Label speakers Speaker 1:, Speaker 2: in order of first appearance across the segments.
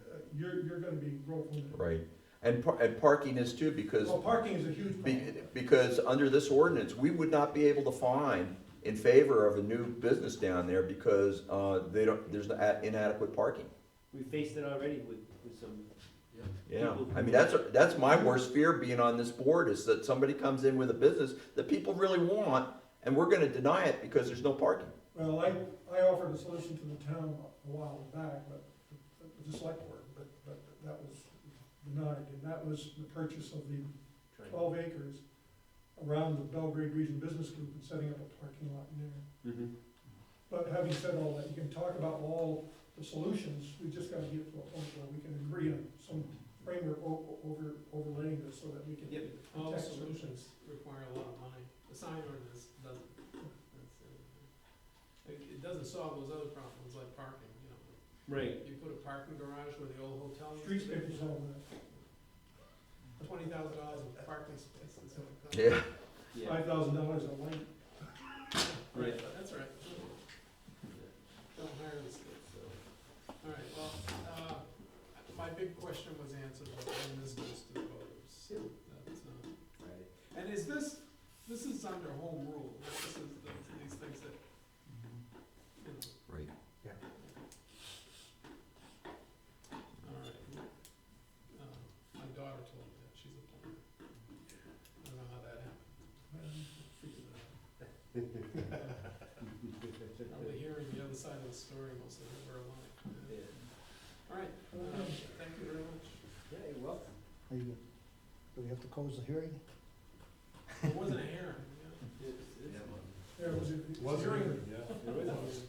Speaker 1: Uh, you're, you're gonna be growth limited.
Speaker 2: Right, and par- and parking is too, because,
Speaker 1: Well, parking is a huge
Speaker 2: be-
Speaker 1: problem.
Speaker 2: because under this ordinance, we would not be able to find in favor of a new business down there because, uh, they don't, there's a- inadequate parking.
Speaker 3: We faced it already with, with some.
Speaker 2: Yeah,
Speaker 3: people
Speaker 2: I
Speaker 3: who-
Speaker 2: mean, that's, that's my worst fear being on this board, is that somebody comes in with a business that people really want, and we're gonna deny it because there's no parking.
Speaker 1: Well, I, I offered a solution to the town a while back, but, the select board, but, but that was denied. And that was the purchase of the
Speaker 4: Oh.
Speaker 1: twelve acres around the Belgrade Region Business Group and setting up a parking lot in there.
Speaker 4: Mm-hmm.
Speaker 3: Mhm.
Speaker 1: But having said all that, you can talk about all the solutions, we just gotta get to a point where we can agree on some framework o- over, overlaying this so that we can.
Speaker 4: Yep. All
Speaker 1: protect
Speaker 4: solutions require a lot of money. The sign ordinance doesn't. That's, uh, It, it doesn't solve those other problems like parking, you know.
Speaker 3: Right.
Speaker 4: You put a parking garage where the old hotel used to
Speaker 1: Streetscapers,
Speaker 4: be.
Speaker 1: all that,
Speaker 4: Twenty thousand dollars in parking space and so.
Speaker 2: Yeah,
Speaker 1: five thousand dollars a light.
Speaker 3: Right.
Speaker 4: That's right. Don't hire this kid, so. All right, well, uh, my big question was answered, but then this goes to the voters. That's, uh, And is this, this is under home rule, this is, the- these things that, you know,
Speaker 2: right.
Speaker 4: all right. Uh, My daughter told me that, she's a plumber. I don't know how that happened. Probably hearing the other side of the story most of her life. All right, uh, thank you very much.
Speaker 3: Yeah, you're welcome.
Speaker 5: Are you, do we have to close the hearing?
Speaker 4: It wasn't a hearing, yeah.
Speaker 1: There was a. hearing.
Speaker 3: Yeah, it was.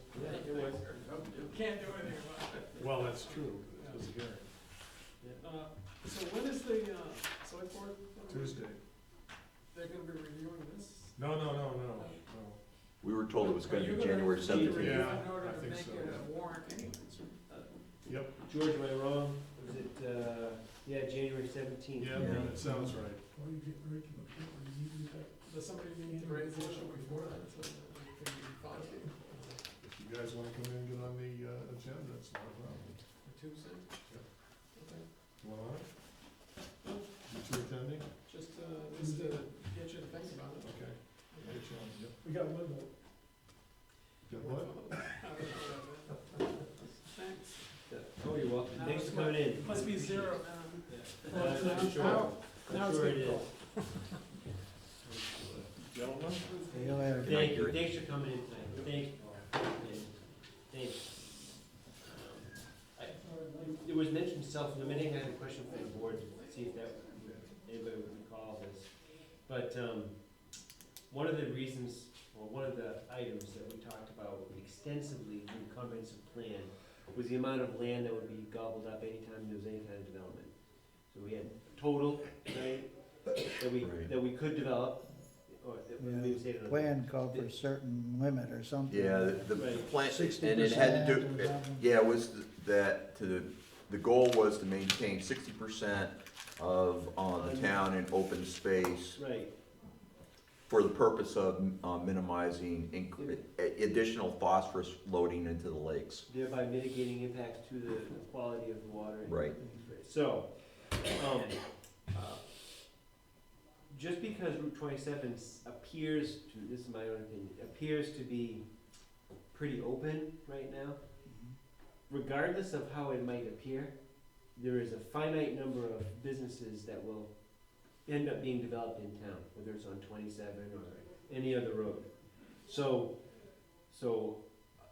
Speaker 4: Can't do anything about it.
Speaker 6: Well, that's true.
Speaker 4: Yeah.
Speaker 6: It was here
Speaker 4: Uh, So when is the, uh, select board?
Speaker 6: Tuesday.
Speaker 4: They're gonna be reviewing this?
Speaker 6: No, no, no, no, no.
Speaker 2: We were told it was gonna
Speaker 4: Are you
Speaker 2: be January
Speaker 4: keep it
Speaker 2: seventeenth.
Speaker 6: Yeah,
Speaker 4: In order
Speaker 6: I
Speaker 4: to
Speaker 6: think
Speaker 4: make
Speaker 6: so,
Speaker 4: it
Speaker 6: yeah.
Speaker 4: a warrant anyways, right?
Speaker 6: Yep,
Speaker 3: George, am I wrong? Was it, uh, yeah, January seventeenth?
Speaker 6: yeah,
Speaker 2: Yeah.
Speaker 6: that sounds right.
Speaker 1: Or you get right to the point where you need to do that.
Speaker 4: Does somebody need to raise the issue before that, so that it can be filed for
Speaker 6: If you guys wanna come in and get on the uh, agenda, it's not a problem.
Speaker 4: Tuesday? Okay,
Speaker 6: You want on it? You two attending?
Speaker 4: just, uh, just to get you to think about it.
Speaker 6: Okay. Get you on, yep.
Speaker 1: We got limbo.
Speaker 6: Got what?
Speaker 4: I don't know about that. Thanks.
Speaker 3: Oh, you're welcome.
Speaker 4: Now
Speaker 3: Thanks
Speaker 4: it's
Speaker 3: for coming in.
Speaker 4: Must be zero, man.
Speaker 3: Uh, I'm sure.
Speaker 4: Now- now
Speaker 3: I'm
Speaker 4: it's
Speaker 3: sure it
Speaker 4: good.
Speaker 3: is.
Speaker 6: Gentlemen?
Speaker 5: See you later.
Speaker 3: Thank you, thanks for coming in tonight, thank you, Paul. And Thanks. Um, I- It was mentioned self-limiting, I had a question for the board, to see if that, anybody would recall this. But, um, one of the reasons, or one of the items that we talked about extensively in the comprehensive plan was the amount of land that would be gobbled up anytime there was any kind of development. So we had total, right, that we,
Speaker 2: Right.
Speaker 3: that we could develop, or that we
Speaker 5: Yeah.
Speaker 3: would say.
Speaker 5: Plan called for a certain limit or something.
Speaker 2: Yeah, the- the, the
Speaker 3: Right.
Speaker 2: plan,
Speaker 5: Sixty
Speaker 2: and it had to
Speaker 5: percent
Speaker 2: do,
Speaker 5: or something.
Speaker 2: yeah, it was th- that, to, the goal was to maintain sixty percent of, uh the town in open space
Speaker 3: Right,
Speaker 2: for the purpose of uh, minimizing inc- a- additional phosphorus loading into the lakes.
Speaker 3: thereby mitigating impacts to the the quality of the water. and-
Speaker 2: Right.
Speaker 3: So, um, uh, just because Route twenty-seven s- appears to, this is my own opinion, appears to be pretty open right now, regardless of how it might appear, there is a finite number of businesses that will end up being developed in town, whether it's on twenty-seven or any other road. So, so,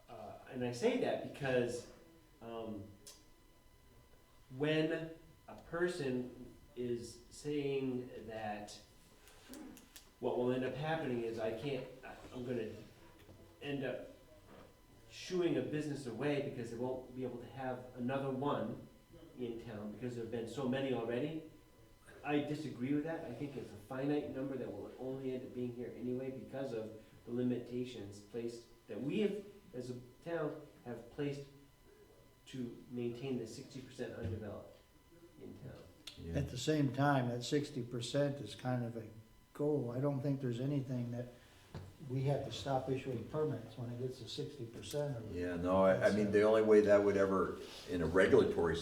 Speaker 3: uh, and I say that because, um, when a person is saying that what will end up happening is I can't, I- I'm gonna end up shooing a business away because they won't be able to have another one in town because there've been so many already. I disagree with that. I think it's a finite number that will only end up being here anyway because of the limitations placed that we have, as a town, have placed to maintain the sixty percent undeveloped in town.
Speaker 2: Yeah.
Speaker 5: At the same time, that sixty percent is kind of a goal. I don't think there's anything that we have to stop issuing permits when it gets to sixty percent or
Speaker 2: Yeah, no, I, I mean, the only way that would ever, in a regulatory